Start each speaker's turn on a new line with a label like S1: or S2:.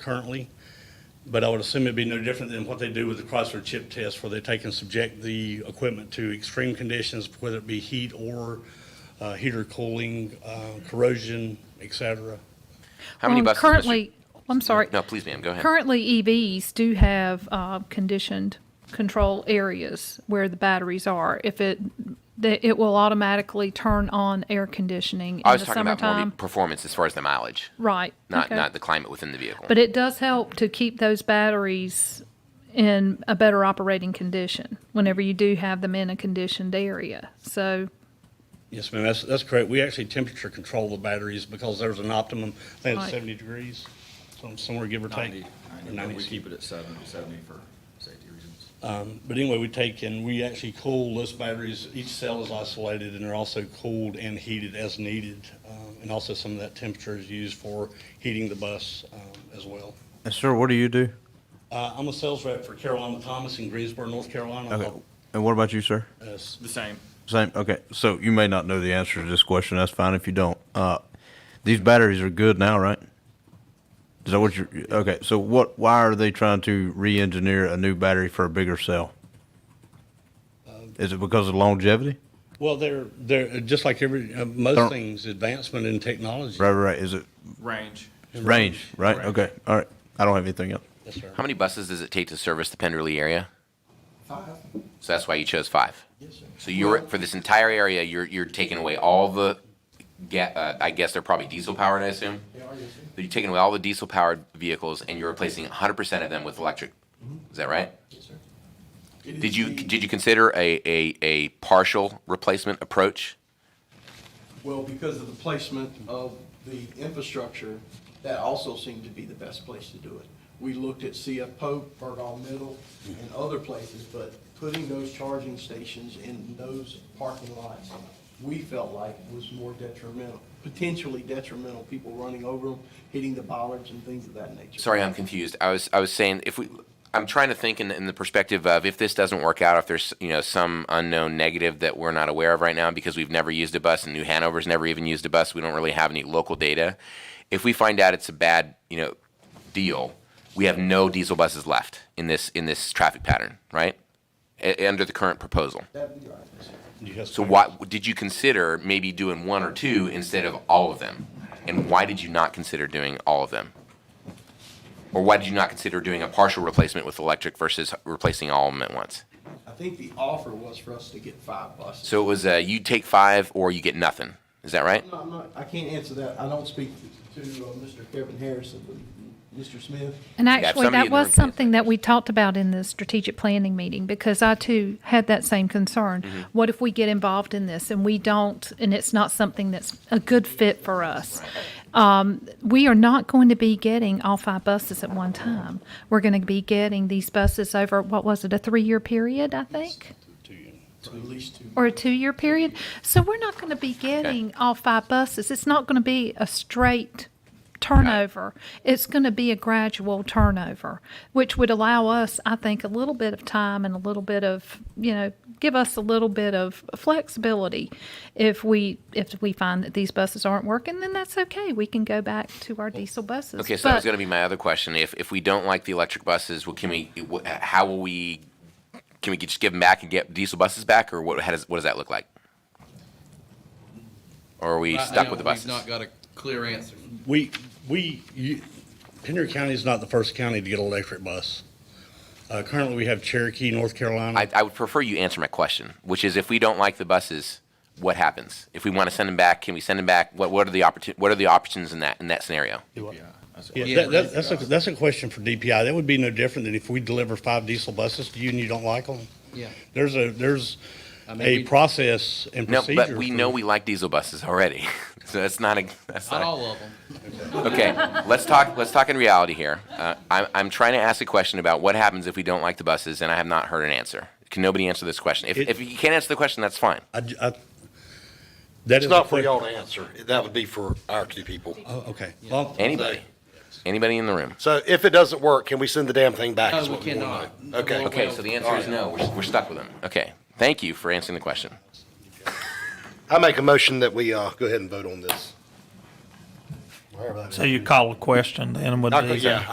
S1: currently, but I would assume it'd be no different than what they do with the Chrysler chip test, where they take and subject the equipment to extreme conditions, whether it be heat or uh, heater cooling, uh, corrosion, et cetera.
S2: How many
S3: Um,
S2: buses? Mr.
S3: Currently, I'm sorry.
S2: No, please, ma'am, go ahead.
S3: Currently, EVs do have uh, conditioned control areas where the batteries are. If it, that it will automatically turn on air conditioning
S2: I
S3: in
S2: was
S3: the
S2: talking about more
S3: summertime.
S2: the performance as far as the mileage,
S3: Right.
S2: not
S3: okay.
S2: not the climate within the vehicle.
S3: But it does help to keep those batteries in a better operating condition whenever you do have them in a conditioned area. So,
S1: Yes, ma'am, that's, that's correct. We actually temperature control the batteries because there's an optimum, I think it's
S3: Right.
S1: 70 degrees, some- somewhere give or take.
S4: 90,
S1: Or
S4: 90,
S1: 90,
S4: but we
S1: excuse
S4: keep it at 70, 70 for safety reasons.
S1: But anyway, we take and we actually cool those batteries. Each cell is isolated and they're also cooled and heated as needed. Um, And also some of that temperature is used for heating the bus um, as well.
S5: And sir, what do you do?
S1: Uh, I'm a sales rep for Carolina Thomas in Greensboro, North Carolina.
S5: Okay. Oh. And what about you, sir?
S1: Uh, s-
S4: The same.
S5: Same. Okay. So you may not know the answer to this question. That's fine if you don't. Uh, these batteries are good now, right? Is that what you're? Okay. So what? Why are they trying to re-engineer a new battery for a bigger cell? Is it because of longevity?
S1: Well, they're, they're, just like every, uh, most
S5: Don't-
S1: things, advancement in technology.
S5: Right. Right. right. Is it
S4: Range.
S5: range? Right.
S4: Range.
S5: Okay. All right. I don't have anything else.
S1: Yes, sir.
S2: How many buses does it take to service the Penderly area? Five. So that's why you chose five. Yes, sir. So you're for this entire area, you're you're taking away all the, ga- uh, I guess they're probably diesel powered. I assume. Yeah, But you're taking away all the diesel powered vehicles and you're replacing 100 percent of them with electric. Is that right? Yes, sir. Did you did you consider a a, a partial replacement approach?
S6: Well, because of the placement of the infrastructure, that also seemed to be the best place to do it. We looked at CF Pope, Bergall Middle, and other places, but putting those charging stations in those parking lots, we felt like was more detrimental, potentially detrimental, people running over them, hitting the bollards and things of that nature.
S2: Sorry, I'm confused. I was I was saying if we I'm trying to think in, in the perspective of if this doesn't work out, if there's you know some unknown negative that we're not aware of right now because we've never used a bus and New Hanover's never even used a bus, we don't really have any local data. If we find out it's a bad you know deal, we have no diesel buses left in this in this traffic pattern, right? A- under the current proposal.
S6: That'd be right.
S1: Yes,
S2: So
S1: ma'am.
S2: why did you consider maybe doing one or two instead of all of them? And why did you not consider doing all of them? Or why did you not consider doing a partial replacement with electric versus replacing all of them at once?
S6: I think the offer was for us to get five buses.
S2: So it was uh, you take five or you get nothing. Is that right?
S6: No, I'm not, I can't answer that. I don't speak to uh, Mr. Kevin Harrison, but Mr. Smith.
S3: And
S2: if somebody
S3: actually, that
S2: in the room
S3: was
S2: can't
S3: something that we talked about in the strategic planning meeting, because I too had that same concern. What if we get involved in this and we don't, and it's not something that's a good fit for us? Um, We are not going to be getting all five buses at one time. We're going to be getting these buses over, what was it, a three-year period, I think?
S1: To you.
S6: At least two.
S3: Or a two-year period? So we're not going to be getting all five buses. It's not going to be a straight turnover. It's going to be a gradual turnover, which would allow us, I think, a little bit of time and a little bit of, you know, give us a little bit of flexibility. If we, if we find that these buses aren't working, then that's okay. We can go back to our diesel buses.
S2: Okay, so that was
S3: But-
S2: going to be my other question. If if we don't like the electric buses, well, can we? wh- How will we? Can we just give them back and get diesel buses back, or what? How does what does that look like? Or are we
S7: Right
S2: stuck
S7: now,
S2: with the buses?
S7: We've not got a clear answer.
S1: We, we, you- Pender County is not the first county to get an electric bus. Uh, Currently, we have Cherokee, North Carolina.
S2: I, I would prefer you answer my question, which is if we don't like the buses, what happens? If we want to send them back, can we send them back? What, what are the opportun, what are the options in that, in that scenario?
S4: Yeah. I said-
S1: Yeah,
S7: Yeah,
S1: that, that, that's a, that's a question for DPI. That would be no different than if we deliver five diesel buses to you and you don't like them.
S7: Yeah.
S1: There's a, there's
S7: I mean,
S1: a
S7: we-
S1: process and
S2: No,
S1: procedure.
S2: but we
S1: for-
S2: know we like diesel buses already. So that's not a, that's
S7: Not
S2: not,
S7: all of them.
S2: a- okay, let's talk, let's talk in reality here. Uh, I'm, I'm trying to ask a question about what happens if we don't like the buses and I have not heard an answer. Can nobody answer this question? If,
S1: It-
S2: if you can't answer the question, that's fine.
S1: I, j- I- that is.
S8: It's
S1: a
S8: not for
S1: que-
S8: y'all to answer. That would be for our two people.
S1: Oh, okay. Well,
S2: Anybody? Anybody in the room?
S8: So if it doesn't work, can we send the damn thing back?
S7: No,
S8: is
S7: we
S8: what wanna
S7: cannot.
S8: know. Okay.
S7: Well,
S2: Okay, so the answer is no, we're, we're stuck with them. Okay, thank you for answering the question.
S8: I make a motion that we, uh, go ahead and vote on this. Whatever that is.
S9: So you call a question then with
S8: I-
S9: these?
S8: Yeah,